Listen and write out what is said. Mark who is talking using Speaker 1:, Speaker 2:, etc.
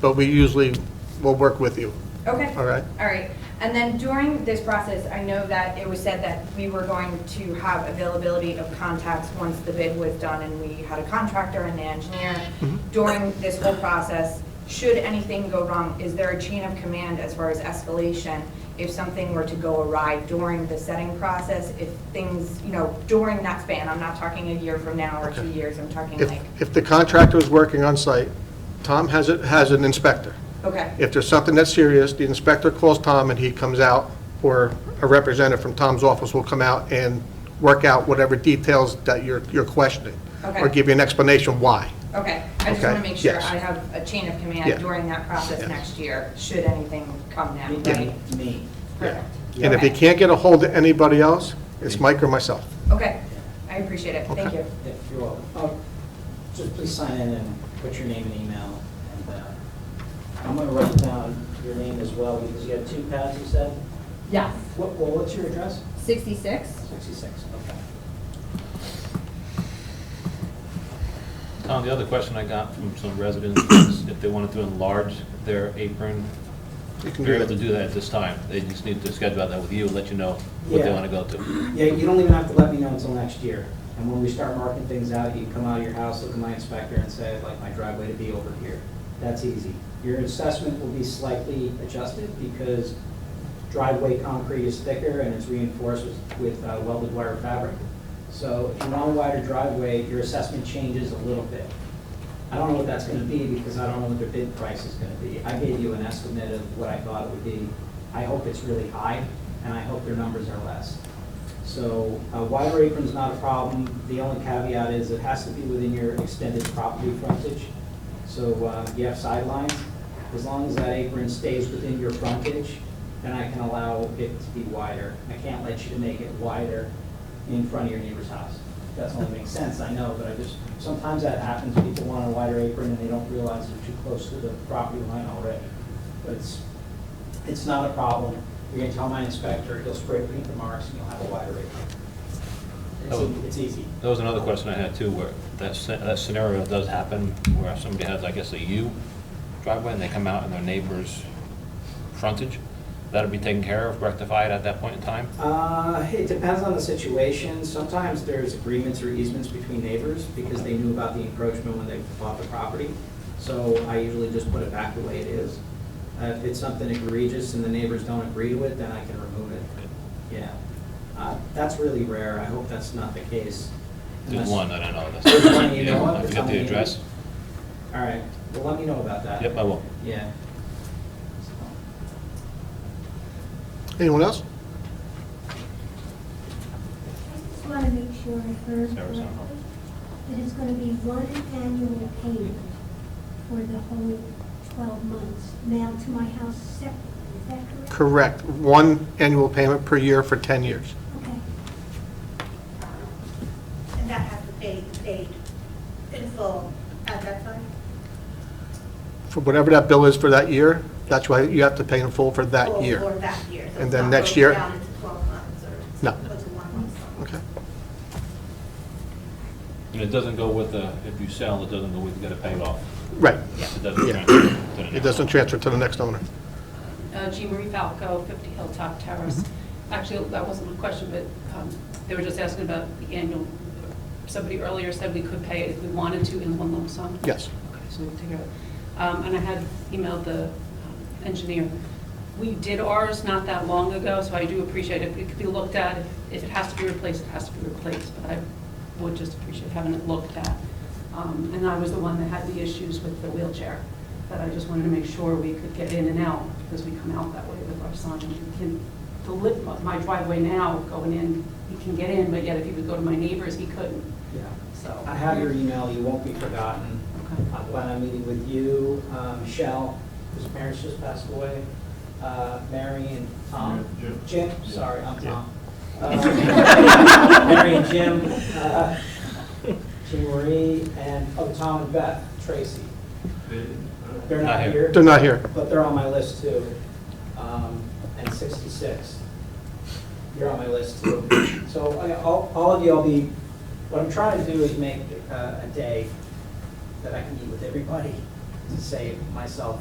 Speaker 1: but we usually will work with you.
Speaker 2: Okay.
Speaker 1: All right.
Speaker 2: All right. And then during this process, I know that it was said that we were going to have availability of contacts once the bid was done and we had a contractor and the engineer.
Speaker 1: Mm-hmm.
Speaker 2: During this whole process, should anything go wrong, is there a chain of command as far as escalation? If something were to go awry during the setting process, if things, you know, during that span, I'm not talking a year from now or two
Speaker 1: Okay.
Speaker 2: years, I'm talking
Speaker 1: If,
Speaker 2: like,
Speaker 1: if the contractor is working on site, Tom has, it has an inspector.
Speaker 2: okay.
Speaker 1: If there's something that's serious, the inspector calls Tom and he comes out, or a representative from Tom's office will come out and work out whatever details that you're, you're questioning. Or
Speaker 2: Okay.
Speaker 1: give you an explanation why.
Speaker 2: Okay, I just
Speaker 1: Okay,
Speaker 2: want to make sure
Speaker 1: yes.
Speaker 2: I have a chain of
Speaker 1: Yeah.
Speaker 2: command during that process
Speaker 1: Yes.
Speaker 2: next year, should anything come now, right?
Speaker 3: Me, me.
Speaker 1: Yeah.
Speaker 2: Perfect.
Speaker 1: And if you
Speaker 2: Okay.
Speaker 1: can't get a hold of anybody else, it's Mike or myself.
Speaker 2: Okay, I appreciate it, thank
Speaker 1: Okay.
Speaker 2: you.
Speaker 3: Yeah, you're welcome. Oh, Just please sign in and put your name and email. And uh, I'm going to write down your name as well, because you have two pads, you said?
Speaker 2: Yes.
Speaker 3: What, well, what's your address?
Speaker 2: 66?
Speaker 3: 66, okay.
Speaker 4: Tom, the other question I got from some residents was if they wanted to enlarge their apron,
Speaker 1: You can do
Speaker 4: they're able to
Speaker 1: that.
Speaker 4: do that at this time. They just need to schedule that with you, let you know what they
Speaker 3: Yeah.
Speaker 4: want to go to.
Speaker 3: Yeah, you don't even have to let me know until next year. And when we start marking things out, you come out of your house, look at my inspector and say, I'd like my driveway to be over here. That's easy. Your assessment will be slightly adjusted because driveway concrete is thicker and it's reinforced with- with uh, welded wire fabric. So if you want a wider driveway, your assessment changes a little bit. I don't know what that's gonna be because I don't know what their bid price is gonna be. I gave you an estimate of what I thought it would be. I hope it's really high and I hope their numbers are less. So uh, wider apron's not a problem. The only caveat is it has to be within your extended property frontage. So uh, you have sidelines. As long as that apron stays within your frontage, then I can allow it to be wider. I can't let you make it wider in front of your neighbor's house. That's only makes sense, I know, but I just, sometimes that happens. People want a wider apron and they don't realize they're too close to the property line already. But it's, it's not a problem. You're gonna tell my inspector, he'll spray paint the marks and you'll have a wider apron.
Speaker 4: Oh.
Speaker 3: It's, it's easy.
Speaker 4: That was another question I had too, where that sce- that scenario does happen, where somebody has, I guess, a U driveway, and they come out in their neighbor's frontage. That'll be taken care of, rectified at that point in time?
Speaker 3: Uh, it depends on the situation. Sometimes there's agreements or easements between neighbors because they knew about the encroachment when they bought the property. So I usually just put it back the way it is. Uh, if it's something egregious and the neighbors don't agree to it, then I can remove it. Yeah. Uh, that's really rare. I hope that's not the case. Unless-
Speaker 4: There's one, I don't know.
Speaker 3: There's one you
Speaker 4: Yeah,
Speaker 3: know of
Speaker 4: I
Speaker 3: that's
Speaker 4: forgot
Speaker 3: on
Speaker 4: the
Speaker 3: the-
Speaker 4: address.
Speaker 3: All right, well, let me know about that.
Speaker 4: Yep, uh, I will.
Speaker 3: Yeah.
Speaker 1: Anyone else?
Speaker 5: I just want to make sure I heard
Speaker 4: Sarah's on
Speaker 5: correctly, that it's going to be one annual payment for the whole 12 months, mailed to my house separately, is that correct?
Speaker 1: Correct. One annual payment per year for 10 years.
Speaker 5: Okay,
Speaker 6: And that has to be paid in full at that time?
Speaker 1: For whatever that bill is for that year, that's why you have to pay in full for that
Speaker 6: Or-
Speaker 1: year.
Speaker 6: Or that year. so
Speaker 1: And
Speaker 6: it's
Speaker 1: then
Speaker 6: not
Speaker 1: next
Speaker 6: broken
Speaker 1: year-
Speaker 6: down into 12 months or
Speaker 1: No.
Speaker 6: or to one month.
Speaker 1: Okay.
Speaker 4: And it doesn't go with the, if you sell, it doesn't go with, you gotta pay it off.
Speaker 1: Right.
Speaker 4: It doesn't
Speaker 1: Yeah.
Speaker 4: transfer to the
Speaker 1: It
Speaker 4: next
Speaker 1: doesn't
Speaker 4: one.
Speaker 1: transfer to the next owner.
Speaker 7: Uh, Jean Marie Falco, 50 Hilltop Terrace. Actually, that wasn't a question, but um, they were just asking about the annual, somebody earlier said we could pay it if we wanted to in one lump sum.
Speaker 1: Yes.
Speaker 7: Um, Okay, so we'll take care of it. Um, And I had emailed the um, engineer. We did ours not that long ago, so I do appreciate it. It could be looked at. If it has to be replaced, it has to be replaced, but I would just appreciate having it looked at. Um, And I was the one that had the issues with the wheelchair, but I just wanted to make sure we could get in and out, because we come out that way with our son. and we can the lip- My driveway now going in, he can get in, but yet if he would go to my neighbor's, he couldn't,
Speaker 3: Yeah.
Speaker 7: so.
Speaker 3: I have your email, you won't be forgotten.
Speaker 7: Okay.
Speaker 3: Uh, When I'm meeting with you, uh, Michelle, whose parents just passed away, uh, Mary and Tom. Jim. sorry, I'm Tom. Uh, Mary and Jim, uh, Jean Marie, and, oh, Tom and Beth, Tracy. They're
Speaker 4: Not
Speaker 3: not
Speaker 4: here.
Speaker 3: here.
Speaker 1: They're not here.
Speaker 3: But they're on my list too. Um, And 66. You're on my list too. So I- all, all of you, I'll be, what I'm trying to do is make uh, a day that I can meet with everybody to save myself